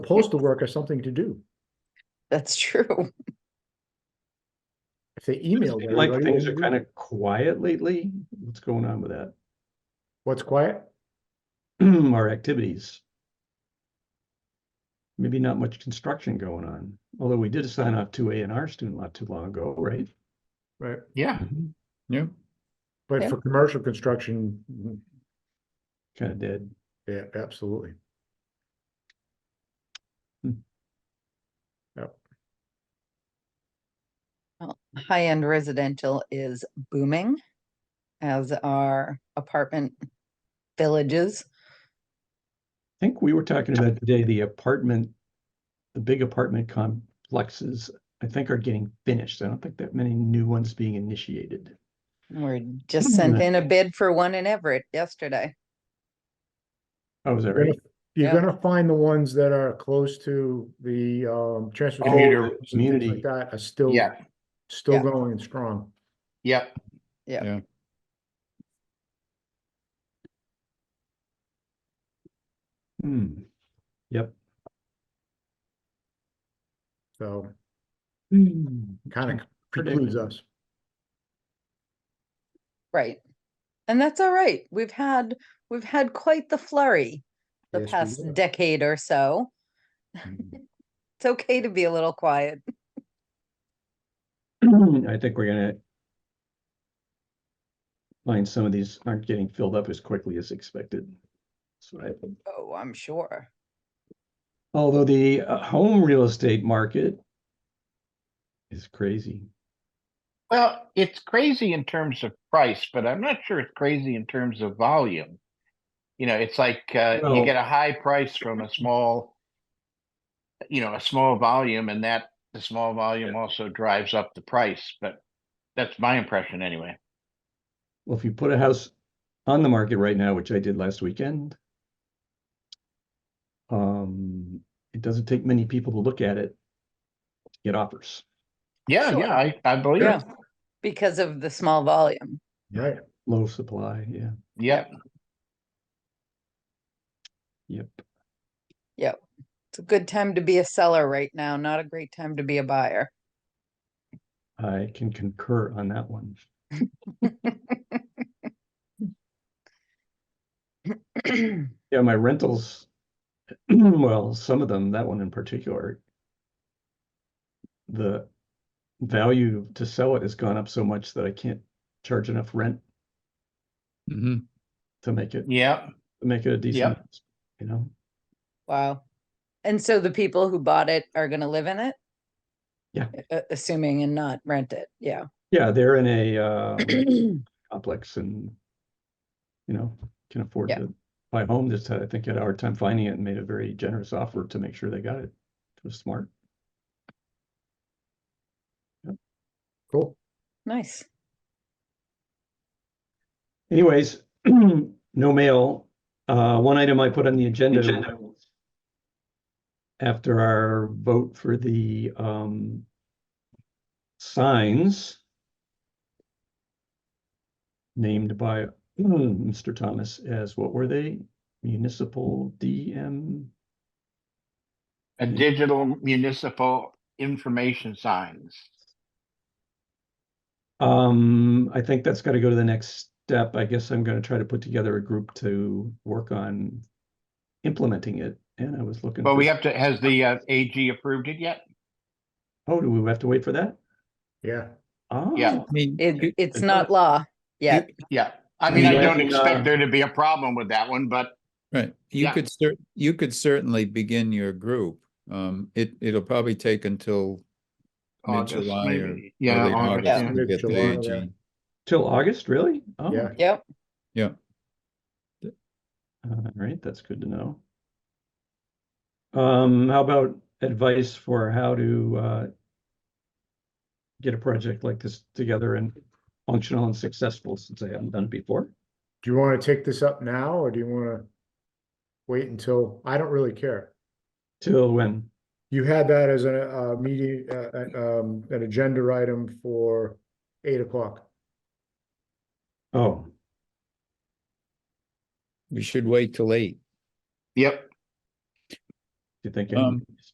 postal workers something to do. That's true. If they email. Like things are kind of quiet lately. What's going on with that? What's quiet? Our activities. Maybe not much construction going on, although we did assign off two A and R student lot too long ago, right? Right, Yeah, yeah. but Yeah. for commercial construction, mhm, Kind of dead. yeah, absolutely. High-end residential is booming, as are apartment villages. I think we were talking about today, the apartment, the big apartment complexes, I think are getting finished. I don't think that many new ones being initiated. We're just sent Hmm. Mhm. in a bid for one in Everett yesterday. Oh, is that You're right? gonna- You're Yeah. gonna find the ones that are close to the um Commuter transportation. routes and things community. like That are still, Yeah, still Yeah. going and strong. yep. Yep. Yeah. Hmm. Yep. So Hmm. kind of precludes Predictable. us. Right. And that's all right. We've had, we've had quite the flurry the Yes, we past have. decade or so. Mm-hmm. Mhm. It's okay to be a little quiet. I think we're gonna find some of these aren't getting filled up as quickly as expected. That's what I think. Oh, I'm sure. Although the uh, home real estate market is crazy. Well, it's crazy in terms of price, but I'm not sure it's crazy in terms of volume. You know, it's like uh, No. you get a high price from a small, you know, a small volume, and that the small volume also drives up the price. But that's my impression anyway. Well, if you put a house on the market right now, which I did last weekend, um, it doesn't take many people to look at it to get offers. Yeah, Sure. yeah, I, I believe Yeah. it. Because of the small volume. Right, Low supply, yeah, Yep. yep. It's a good time to be a seller right now, not a great time to be a buyer. I can concur on that one. Yeah, my rentals, well, some of them, that one in particular, the value to sell it has gone up so much that I can't charge enough rent Mm-hmm. to make it, Yep. make it a decent, house, you know? Wow. And so the people who bought it are gonna live in it? Yeah. A- Assuming and not rent it, yeah. Yeah, they're in a uh, complex and, you know, can afford Yeah. to buy a home. This had, I think, had a hard time finding it and made a very generous offer to make sure they got it. It was smart. cool. Nice. Anyways, no mail. Uh, one item I put on the agenda. After our vote for the, um, signs named by mm, Mr. Thomas as what were they? Municipal DM? A digital municipal information signs. Um, I think that's gotta go to the next step. I guess I'm gonna try to put together a group to work on implementing it. And I was looking. But for- we have to, has the uh, AG approved it yet? Oh, do we have to wait for that? Yeah, Oh, Yeah. I mean, It, it's it's not not- law yet. Yeah, I mean, I Yeah. don't And, uh, expect there to be a problem with that one, but right, you Yeah. could cer- you could certainly begin your group. Um, it, it'll probably take until August, mid-July or maybe. Yeah, early August, August yeah. to get the Mid-July, AG. yeah. till August, really? Oh, Yeah. Yep, All right, that's good to know. Um, how about advice for how to uh get a project like this together and functional and successful since I haven't done it before? do you wanna take this up now, or do you wanna wait until, I don't really care. Till when? You had that as a, uh meeting, uh, uh, um, an agenda item for eight o'clock. Oh, We should wait till eight. yep, you think? Um,